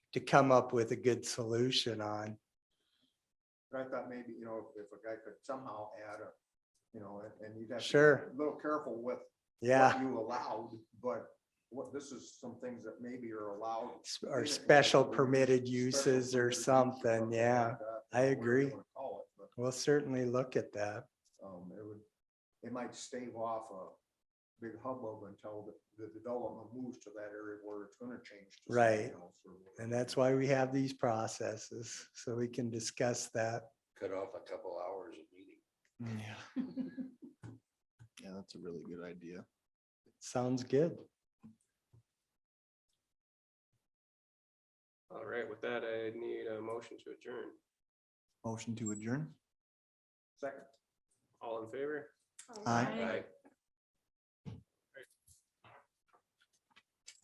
to come up with a good solution on. But I thought maybe, you know, if if a guy could somehow add a, you know, and- and you'd have. to be Sure. A little careful with Yeah, what you allowed, but what, this is some things that maybe are allowed. s- or special permitted uses or something. Yeah, I agree. We'll certainly look at that. um, it would, it might stave off a big hubbub until the, the development moves to that area where it's gonna change. to something Right. else or whatever. And that's why we have these processes, so we can discuss that. cut off a couple hours of meeting. Yeah. Mm, Yeah, that's a really good idea. Sounds good. All right, with that, I need a motion to adjourn. Motion to adjourn? Second. All in favor? Aye. Right.